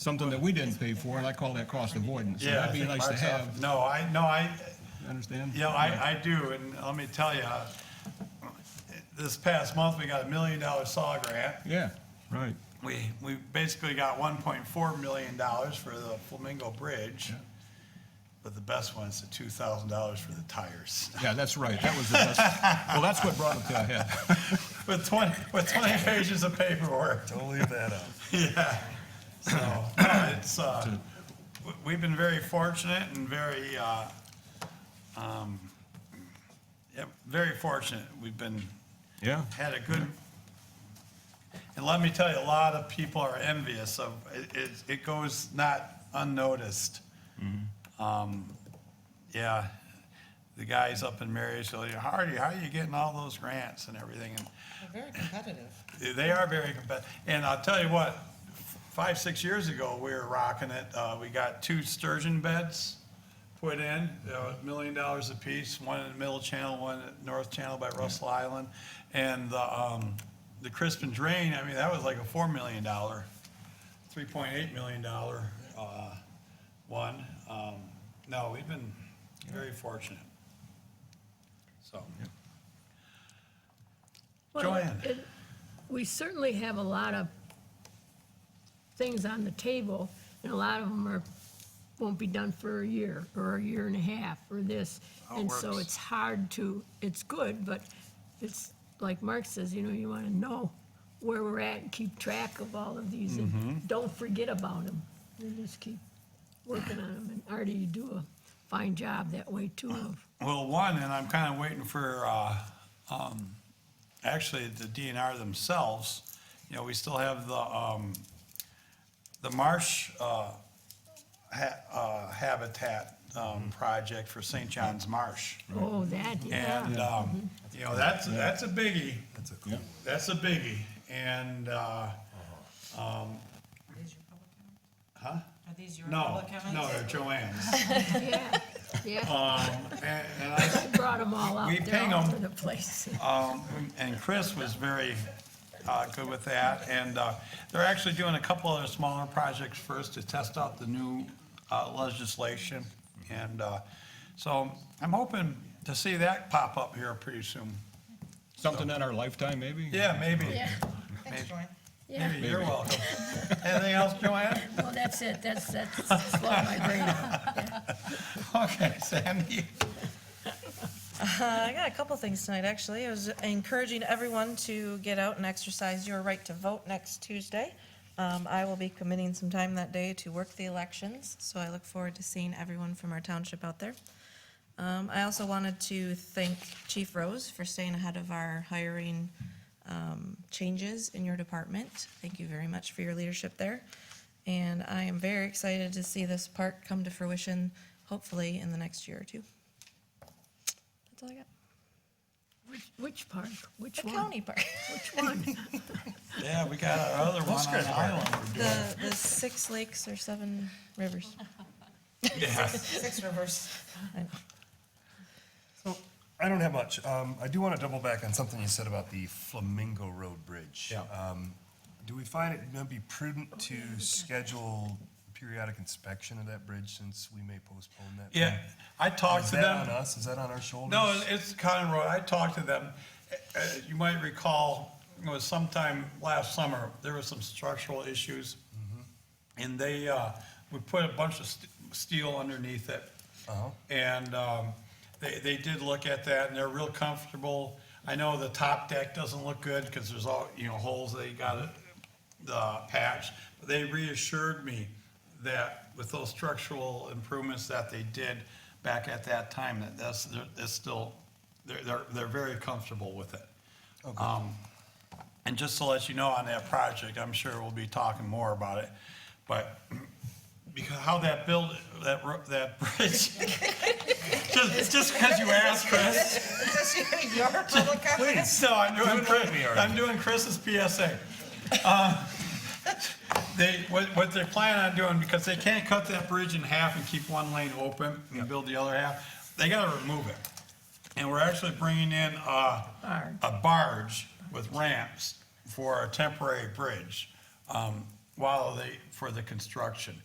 something that we didn't pay for, and I call that cost avoidance. So Yeah, I That'd be think nice to Mark's off. have, No, I, no, I, You understand? yeah, I, I do, and let me tell you, this past month, we got a million dollar SAW grant. Yeah, right. We, we basically got one point four million dollars for the Flamingo Bridge. But the best one is the two thousand dollars for the tires. Yeah, that's right. That was the best. Well, that's what brought it to a head. With twenty, with twenty pages of paperwork. Don't leave that out. Yeah, so, no, it's, uh, w- we've been very fortunate and very, uh, um, yeah, very fortunate. We've been, Yeah, had a good, and let me tell you, a lot of people are envious of, it, it, it goes not unnoticed. Mm-hmm. Um, yeah, the guys up in Marysville, you Hardy, how are you getting all those grants and everything? And They're very competitive. they are very competitive. And I'll tell you what, five, six years ago, we were rocking it. Uh, we got two sturgeon beds put in, uh, a million dollars apiece, one in the middle channel, one at north channel by Russell Island. And the, um, the Crispin Drain, I mean, that was like a four million dollar, three point eight million dollar, uh, one. Um, no, we've been very fortunate. So. Well, Joanne. it- We certainly have a lot of things on the table, and a lot of them are, won't be done for a year, or a year and a half, or this. it And so works. it's hard to, it's good, but it's, like Mark says, you know, you want to know where we're at, and keep track of all of these, Mm-hmm. and don't forget about them. You just keep working on them, and Artie, you do a fine job that way too of Well, one, and I'm kind of waiting for, uh, um, actually, the DNR themselves, you know, we still have the, um, the marsh, uh, ha- uh, habitat, Mm-hmm. um, project for St. John's Marsh. Oh, that, yeah. And, um, you know, that's, that's a biggie. Mm-hmm. That's a cool one. That's a biggie. And, uh, Are these your public comments? huh? Are these your No, public comments? no, they're Joanne's. Yeah, yeah, Um, and, and I brought them all out, We ping they're all 'em. over the place. Um, And Chris was very uh, good with that, and uh, they're actually doing a couple other smaller projects first to test out the new uh, legislation. And uh, so I'm hoping to see that pop up here pretty soon. something in our lifetime, maybe? Yeah, maybe. Yeah, Thanks, Joanne. yeah, Maybe, you're welcome. Anything else, Joanne? well, that's it, that's, that's, slowed my brain up. Okay, Sandy? Uh, I got a couple things tonight, actually. I was encouraging everyone to get out and exercise your right to vote next Tuesday. Um, I will be committing some time that day to work the elections, so I look forward to seeing everyone from our township out there. Um, I also wanted to thank Chief Rose for staying ahead of our hiring um, changes in your department. Thank you very much for your leadership there. And I am very excited to see this park come to fruition, hopefully in the next year or two. That's all I got. Which- Which park, which The one? county park. Which one? Yeah, we got our other one on good. the island. we're doing. The, the six lakes or seven rivers. Six rivers. So, I don't have much. Um, I do want to double back on something you said about the Flamingo Road Bridge. Yeah. Um, do we find it going to be prudent to schedule periodic inspection of that bridge since we may postpone that? Yeah, I talked Is to that them. on us? Is that on our shoulders? No, it- it's Conroe. I talked to them. Uh, You might recall, it was sometime last summer, there were some structural issues. And they, uh, we put a bunch of st- steel underneath it. And um, they, they did look at that and they're real comfortable. I know the top deck doesn't look good because there's all, you know, holes they got it, the patch. But They reassured me that with those structural improvements that they did back at that time, that that's, that's still, they're, they're, they're very comfortable with it. And just to let you know on that project, I'm sure we'll be talking more about it, but because how that build, that, ro- that bridge, just, just because you asked, Chris. Is this your public comment? No, I'm doing, Chris- me already. I'm doing Chris's PSA. Uh, They, what, what they're planning on doing, because they can't cut that bridge in half and keep one lane open and build the other half, they gotta remove it. And we're actually bringing in, uh, a barge with ramps for a temporary bridge. Um, while they, for the construction.